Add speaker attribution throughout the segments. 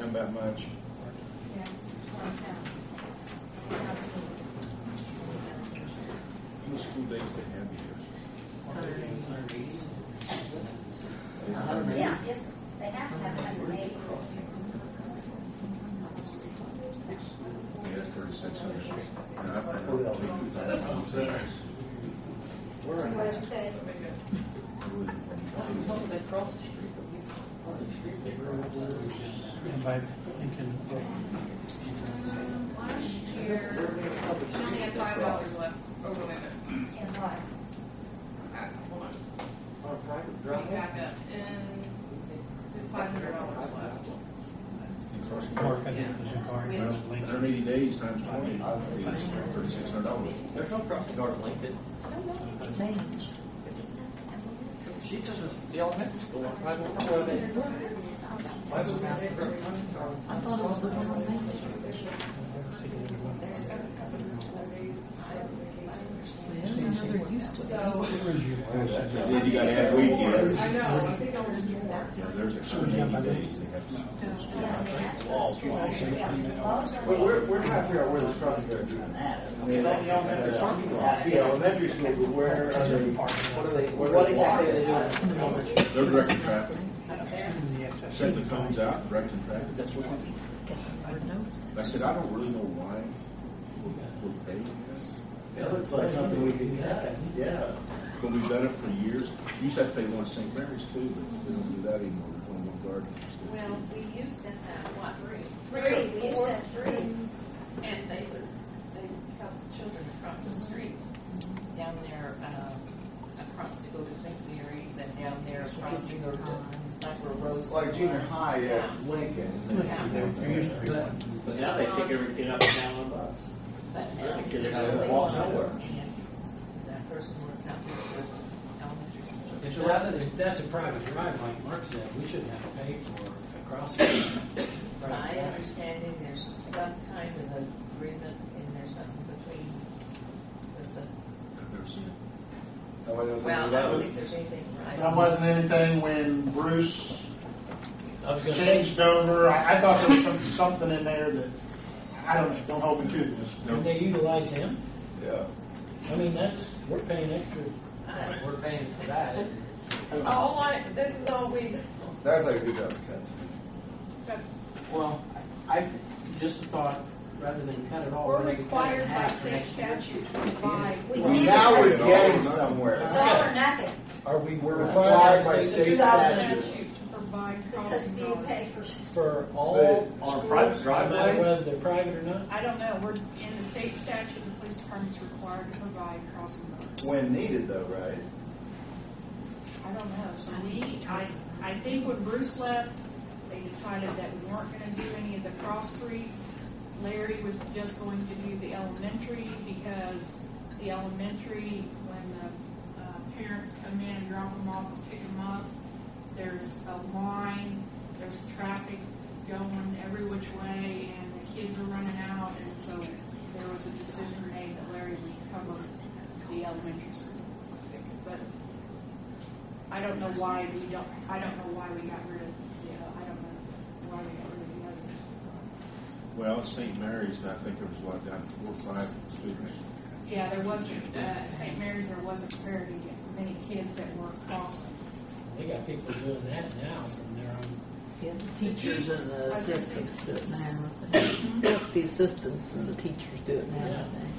Speaker 1: come that much.
Speaker 2: Yeah, twenty thousand.
Speaker 1: How many school days they have here?
Speaker 2: Yeah, it's, they have to have a hundred and eighty.
Speaker 1: Yes, thirty-six hundred. And I paid about fifty thousand.
Speaker 2: What'd you say?
Speaker 3: And by Lincoln,
Speaker 4: Last year, she only had five dollars left. Oh, wait, wait, wait.
Speaker 2: In what?
Speaker 4: Alright, hold on. Let me back up. And five hundred dollars left.
Speaker 3: Mark, I think, was your car,
Speaker 4: Yeah.
Speaker 3: about
Speaker 1: Hundred
Speaker 3: Lincoln.
Speaker 1: eighty days times twenty is thirty-six hundred dollars.
Speaker 5: There's no crossing guard at Lincoln. She says that the elementary school, on five oh five. Five oh five, crossing guard.
Speaker 4: So,
Speaker 1: And then you gotta add weekends.
Speaker 4: I know, I think I'll just do that.
Speaker 1: Yeah, there's a hundred and eighty days they have. to-
Speaker 2: Yeah, they have to go to school.
Speaker 6: Well, we're, we're trying to figure out where this crossing guard's even at. I mean, like, at the elementary school, but where uh, are they?
Speaker 5: What are they, what exactly are they doing? How much?
Speaker 1: They're directing traffic,
Speaker 3: And the FFC.
Speaker 1: setting the cones out, directing traffic.
Speaker 5: That's what we
Speaker 1: I said, I don't really know why we're- we're paying this,
Speaker 6: That looks like something we could, yeah.
Speaker 1: but we've done it for years. You used to have to pay one to St. Mary's too, but we don't do that anymore. We're going one garden instead.
Speaker 7: Well, we used them at what, three?
Speaker 2: Three, we used to have three.
Speaker 7: And they was, they helped children across the streets, down there, uh, across to go to St. Mary's and down there across to go to, like where Rose.
Speaker 6: It's like junior
Speaker 7: was.
Speaker 6: high at Lincoln.
Speaker 7: Yeah.
Speaker 3: There used to be one.
Speaker 5: But now they take everything up and down on bus.
Speaker 7: But now
Speaker 5: Really,
Speaker 7: they
Speaker 5: kids are
Speaker 6: out
Speaker 5: gonna
Speaker 6: there.
Speaker 5: walk nowhere.
Speaker 7: And it's, that person works out there at the elementary school.
Speaker 8: If that's a, if that's a private drive, like Mark said, we shouldn't have to pay for a crossing.
Speaker 7: My understanding, there's some kind of agreement in there, something between, with the,
Speaker 1: I've never seen it.
Speaker 7: well, I don't think there's anything right.
Speaker 6: That wasn't anything when Bruce
Speaker 8: I was gonna say,
Speaker 6: changed over. I, I thought there was some, something in there that, I don't know, don't hold me to this.
Speaker 8: can they utilize him?
Speaker 6: Yeah.
Speaker 8: I mean, that's, we're paying extra.
Speaker 7: I-
Speaker 8: We're paying for that.
Speaker 7: Uh, All I, this is all we,
Speaker 6: That's like a good job,
Speaker 5: Well, I, I just thought, rather than cut it all.
Speaker 7: we're
Speaker 5: maybe cut it in
Speaker 7: required by
Speaker 5: half
Speaker 7: state
Speaker 5: next year.
Speaker 7: statute to provide.
Speaker 2: We
Speaker 6: Well,
Speaker 2: need
Speaker 6: now
Speaker 2: it.
Speaker 6: we're getting somewhere.
Speaker 2: It's all or nothing,
Speaker 8: Are we, we're
Speaker 6: Required
Speaker 8: required
Speaker 6: by
Speaker 8: by
Speaker 6: state
Speaker 8: state
Speaker 6: statute.
Speaker 4: Statute to provide
Speaker 2: because do
Speaker 4: crossing
Speaker 2: you pay
Speaker 4: guards.
Speaker 2: for,
Speaker 8: for all
Speaker 5: On a private
Speaker 8: schools, no matter
Speaker 5: driveway?
Speaker 8: whether they're private or not?
Speaker 4: I don't know, we're, in the state statute, the police department's required to provide crossing guards.
Speaker 6: When needed though, right?
Speaker 4: I don't know, so we, I, I think when Bruce left, they decided that we weren't gonna do any of the cross streets. Larry was just going to do the elementary, because the elementary, when the, uh, parents come in and drop them off and pick them up, there's a line, there's traffic going every which way, and the kids are running out, and so there was a decision made that Larry would cover the elementary school. But I don't know why we don't, I don't know why we got rid of, you know, I don't know why we got rid of the others.
Speaker 1: Well, at St. Mary's, I think there was a lot down to four or five students.
Speaker 4: Yeah, there wasn't, uh, St. Mary's, there wasn't very many kids that were crossing.
Speaker 8: They got people doing that now from their own.
Speaker 9: Yeah, the teachers and the
Speaker 4: I was gonna say-
Speaker 9: assistants do it now. The assistants and the teachers do it now, I
Speaker 8: Yeah.
Speaker 9: think.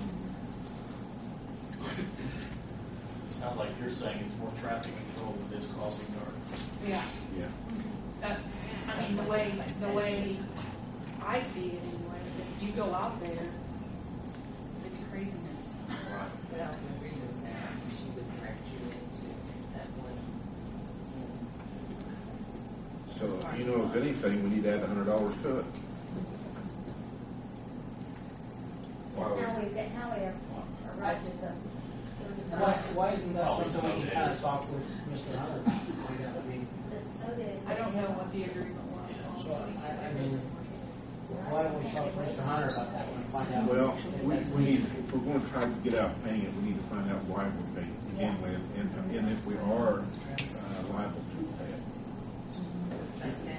Speaker 10: It's not like you're saying it's more traffic control with this crossing guard.
Speaker 4: Yeah,
Speaker 1: Yeah.
Speaker 4: that, I mean, the way, the way I see it anyway, if you go out there, it's craziness.
Speaker 7: Well, the reason is that she would direct you into that one.
Speaker 1: So, you know, if anything, we need to add a hundred dollars to it.
Speaker 2: now we, now we are arrived at the.
Speaker 8: Why, why isn't that something we can kind of talk with Mr. Hunter about? Find out, I mean,
Speaker 2: But snow days.
Speaker 4: I don't know what the agreement was,
Speaker 8: so
Speaker 4: honestly.
Speaker 8: I, I mean, why don't we talk to Mr. Hunter about that and find out?
Speaker 1: Well, we, we need, if we're gonna try to get out paying it, we need to find out why we're paying it. Again, and, and if we are uh, liable to pay it.
Speaker 7: That's what I said,